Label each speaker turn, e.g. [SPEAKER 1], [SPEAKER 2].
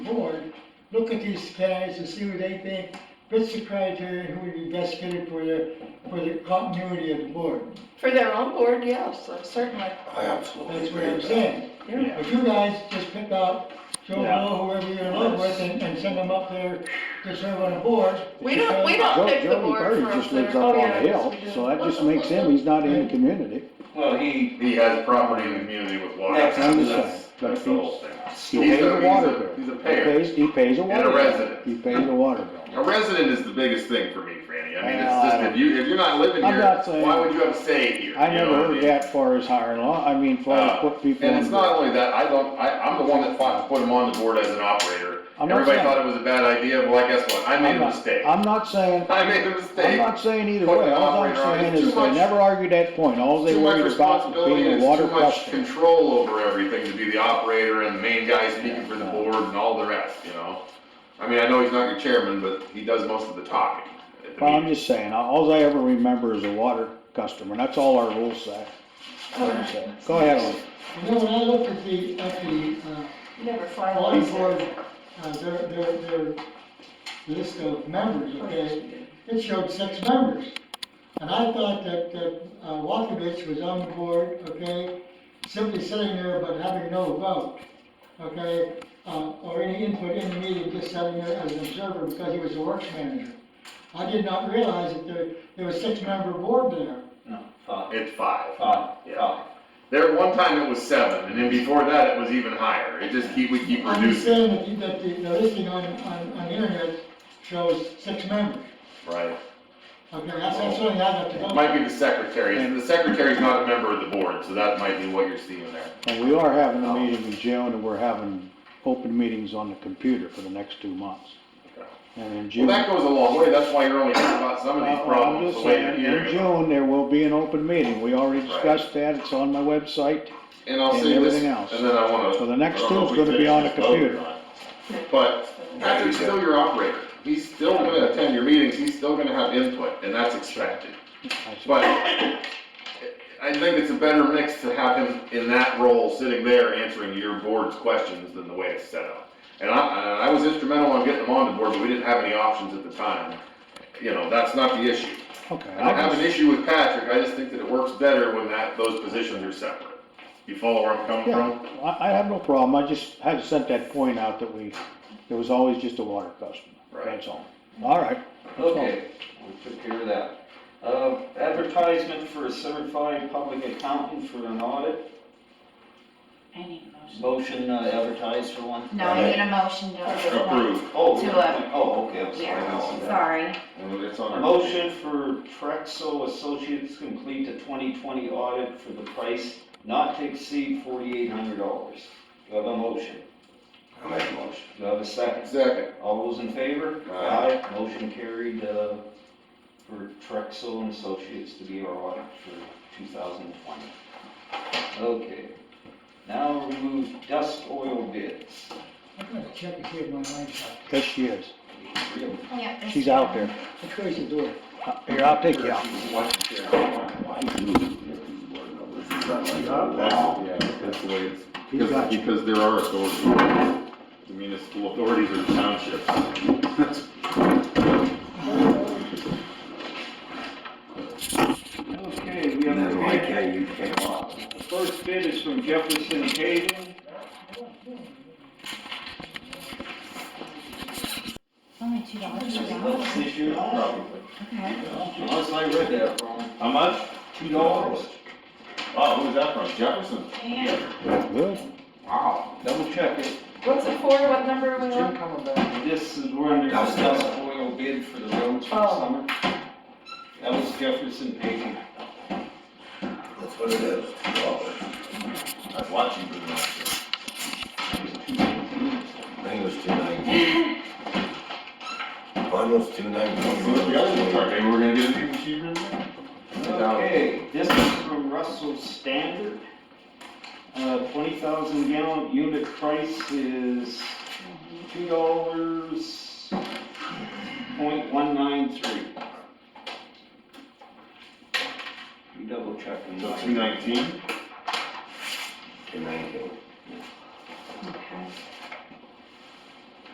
[SPEAKER 1] look at these guys and see what they think fits the criteria, who would be best fitted for the, for the continuity of the board.
[SPEAKER 2] For their own board, yes, uh, certainly,
[SPEAKER 3] I absolutely
[SPEAKER 1] That's
[SPEAKER 3] agree
[SPEAKER 1] what I'm
[SPEAKER 3] with that.
[SPEAKER 1] saying.
[SPEAKER 2] yeah.
[SPEAKER 1] But you guys just pick out Joe
[SPEAKER 4] Yeah.
[SPEAKER 1] Blow, whoever you're in love with, and, and send them up there to serve on a board.
[SPEAKER 2] We don't, we don't
[SPEAKER 5] Joe-
[SPEAKER 2] pick the
[SPEAKER 5] Joey
[SPEAKER 2] board
[SPEAKER 5] Bird
[SPEAKER 2] for us
[SPEAKER 5] just lives
[SPEAKER 2] there.
[SPEAKER 5] up
[SPEAKER 2] Oh,
[SPEAKER 5] on
[SPEAKER 2] yeah,
[SPEAKER 5] a
[SPEAKER 2] yes,
[SPEAKER 5] hill,
[SPEAKER 2] we do.
[SPEAKER 5] so that just makes him, he's not in the community.
[SPEAKER 6] Well, he,
[SPEAKER 3] He has property in the community with water.
[SPEAKER 6] Next.
[SPEAKER 5] I
[SPEAKER 3] That's,
[SPEAKER 5] understand, but
[SPEAKER 3] that's the
[SPEAKER 5] he's,
[SPEAKER 3] whole thing.
[SPEAKER 5] he
[SPEAKER 3] He's
[SPEAKER 5] pays
[SPEAKER 3] a-
[SPEAKER 5] a water
[SPEAKER 3] he's a-
[SPEAKER 5] bill.
[SPEAKER 3] He's a
[SPEAKER 5] He
[SPEAKER 3] payer
[SPEAKER 5] pays, he pays a
[SPEAKER 3] and a
[SPEAKER 5] water bill.
[SPEAKER 3] resident.
[SPEAKER 5] He pays a water bill.
[SPEAKER 3] A resident is the biggest thing for me, Franny. I
[SPEAKER 5] Well,
[SPEAKER 3] mean, it's
[SPEAKER 5] I
[SPEAKER 3] just,
[SPEAKER 5] don't-
[SPEAKER 3] if you, if you're not living
[SPEAKER 5] Uh, I'm not
[SPEAKER 3] here,
[SPEAKER 5] saying-
[SPEAKER 3] why would you have a say here?
[SPEAKER 5] I
[SPEAKER 3] You know
[SPEAKER 5] never
[SPEAKER 3] what I
[SPEAKER 5] heard
[SPEAKER 3] mean?
[SPEAKER 5] that far as hiring law, I mean, flat out put people
[SPEAKER 3] And
[SPEAKER 5] on.
[SPEAKER 3] it's not only that, I don't, I, I'm the one that fought to put him on the board as an operator.
[SPEAKER 5] I'm not
[SPEAKER 3] Everybody
[SPEAKER 5] saying-
[SPEAKER 3] thought it was a bad idea, well, I guess what, I made
[SPEAKER 5] I'm
[SPEAKER 3] a
[SPEAKER 5] not-
[SPEAKER 3] mistake.
[SPEAKER 5] I'm not saying,
[SPEAKER 3] I made a
[SPEAKER 5] I'm
[SPEAKER 3] mistake.
[SPEAKER 5] not saying either
[SPEAKER 3] Put
[SPEAKER 5] way,
[SPEAKER 3] the
[SPEAKER 5] all I'm
[SPEAKER 3] operator on.
[SPEAKER 5] saying
[SPEAKER 3] It's
[SPEAKER 5] is
[SPEAKER 3] too
[SPEAKER 5] they
[SPEAKER 3] much-
[SPEAKER 5] never argued that point, all they
[SPEAKER 3] Too much
[SPEAKER 5] worried about was
[SPEAKER 3] responsibility
[SPEAKER 5] being
[SPEAKER 3] and
[SPEAKER 5] a
[SPEAKER 3] it's
[SPEAKER 5] water
[SPEAKER 3] too much
[SPEAKER 5] question.
[SPEAKER 3] control over everything to be the operator and the main guy speaking for the
[SPEAKER 5] Yeah.
[SPEAKER 3] board and all the rest, you know? I mean, I know he's not your chairman, but he does most of the talking at the
[SPEAKER 5] Well, I'm
[SPEAKER 3] meeting.
[SPEAKER 5] just saying, all I ever remember is a water customer, that's all our rules say.
[SPEAKER 2] Oh,
[SPEAKER 5] Go ahead, Lee.
[SPEAKER 1] You know, when I looked at the, at the, uh,
[SPEAKER 2] Never find
[SPEAKER 1] Water board, uh, their, their, their list of members, okay, it showed six members. And I thought that, that uh, Walkovich was on the board, okay, simply sitting there but having no vote, okay? Uh, or any input in the meeting, just sitting there as an observer because he was the works manager. I did not realize that there, there was six-member board there.
[SPEAKER 4] No, five,
[SPEAKER 3] It's five.
[SPEAKER 4] five,
[SPEAKER 3] Yeah.
[SPEAKER 4] five.
[SPEAKER 3] There, one time it was seven, and then before that, it was even higher. It just keep, we keep
[SPEAKER 1] I'm just
[SPEAKER 3] reducing,
[SPEAKER 1] saying that, you- that the, the listing on, on, on the internet shows six members.
[SPEAKER 3] right?
[SPEAKER 1] Okay, that's, that's what I got to
[SPEAKER 3] It
[SPEAKER 1] go.
[SPEAKER 3] Might be the secretary, and the secretary's not a member of the board, so that might be what you're seeing there.
[SPEAKER 5] And we are having
[SPEAKER 3] Um,
[SPEAKER 5] a meeting in June, and we're having open meetings on the computer for the next two months. And in
[SPEAKER 3] Well,
[SPEAKER 5] June,
[SPEAKER 3] that goes a long way, that's why you're only hearing about some of these
[SPEAKER 5] Well, I'm
[SPEAKER 3] problems
[SPEAKER 5] just
[SPEAKER 3] the way you're
[SPEAKER 5] saying,
[SPEAKER 3] hearing
[SPEAKER 5] in
[SPEAKER 3] about
[SPEAKER 5] June, there will be an open meeting, we already
[SPEAKER 3] Right.
[SPEAKER 5] discussed that, it's on my website.
[SPEAKER 3] And I'll
[SPEAKER 5] and
[SPEAKER 3] say this,
[SPEAKER 5] everything
[SPEAKER 3] and
[SPEAKER 5] else.
[SPEAKER 3] then I wanna.
[SPEAKER 5] So the next
[SPEAKER 3] I don't know
[SPEAKER 5] two's
[SPEAKER 3] if we
[SPEAKER 5] gonna be on the
[SPEAKER 3] finished this vote or
[SPEAKER 5] computer.
[SPEAKER 3] not, But Patrick's still your operator, he's still gonna attend your meetings, he's still gonna have input, and that's expected.
[SPEAKER 5] I said,
[SPEAKER 3] But I think it's a better mix to have him in that role, sitting there answering your board's questions than the way it's set up. And I, and I was instrumental in getting him on the board, but we didn't have any options at the time. You know, that's not the issue.
[SPEAKER 5] Okay,
[SPEAKER 3] I don't
[SPEAKER 5] I
[SPEAKER 3] have an
[SPEAKER 5] just,
[SPEAKER 3] issue with Patrick, I just think that it works better when that, those positions are separate. You follow where I'm coming
[SPEAKER 5] yeah,
[SPEAKER 3] from?
[SPEAKER 5] I, I have no problem, I just had sent that point out that we, there was always just a water customer,
[SPEAKER 3] Right.
[SPEAKER 5] that's all. All right,
[SPEAKER 4] Okay, we took care of that. Uh, advertisement for a certified public accountant for an audit,
[SPEAKER 7] I need a motion.
[SPEAKER 4] motion uh, advertised for one.
[SPEAKER 7] No, I need a motion to.
[SPEAKER 3] Approved.
[SPEAKER 4] Oh,
[SPEAKER 7] To
[SPEAKER 4] yeah,
[SPEAKER 7] a-
[SPEAKER 4] oh, okay, I'm sorry. I don't see
[SPEAKER 7] Yeah,
[SPEAKER 4] that.
[SPEAKER 7] sorry.
[SPEAKER 3] And it's on our.
[SPEAKER 4] Motion for Trexel Associates complete the twenty twenty audit for the price not to exceed forty-eight hundred dollars. Do I have a motion?
[SPEAKER 3] I make a motion.
[SPEAKER 4] Do I have a second?
[SPEAKER 3] Second.
[SPEAKER 4] All those in favor?
[SPEAKER 3] Aye.
[SPEAKER 4] Motion carried, uh, for Trexel and Associates to be our audit for two thousand twenty. Okay, now remove dust oil bids.
[SPEAKER 1] I'm gonna check and see if my wife's out.
[SPEAKER 5] yes, she is,
[SPEAKER 4] Really?
[SPEAKER 7] Yeah,
[SPEAKER 5] she's out there,
[SPEAKER 1] I close the door.
[SPEAKER 5] Uh, here, I'll take you out.
[SPEAKER 3] Yeah, that's the way it's,
[SPEAKER 5] He's
[SPEAKER 3] because,
[SPEAKER 5] got you.
[SPEAKER 3] because there are authorities, the municipal authorities or townships. That's-
[SPEAKER 4] Okay, we have. a
[SPEAKER 6] you came up.
[SPEAKER 4] The First bid is from Jefferson Hayden.
[SPEAKER 7] It's only two dollars.
[SPEAKER 4] This year, probably.
[SPEAKER 7] Okay.
[SPEAKER 4] Unless I read that wrong.
[SPEAKER 3] How much?
[SPEAKER 4] Two dollars?
[SPEAKER 3] Wow, who was that from? Jefferson?
[SPEAKER 5] Good.
[SPEAKER 3] Wow.
[SPEAKER 4] Double check it.
[SPEAKER 2] What's it for, what number are we on?
[SPEAKER 4] This is where under discussed oil bid for the roads for the
[SPEAKER 2] Oh.
[SPEAKER 4] summer. That was Jefferson paving.
[SPEAKER 6] That's what it is, two dollars.
[SPEAKER 3] I was watching for that.
[SPEAKER 6] I think it was two ninety. Mine was two ninety.
[SPEAKER 3] The other part, maybe we're gonna get it even cheaper than that?
[SPEAKER 4] Okay, this is from Russell Standard. Uh, twenty thousand gallon unit price is two dollars point one nine three. You double check and.
[SPEAKER 3] So two nineteen?
[SPEAKER 6] Two ninety.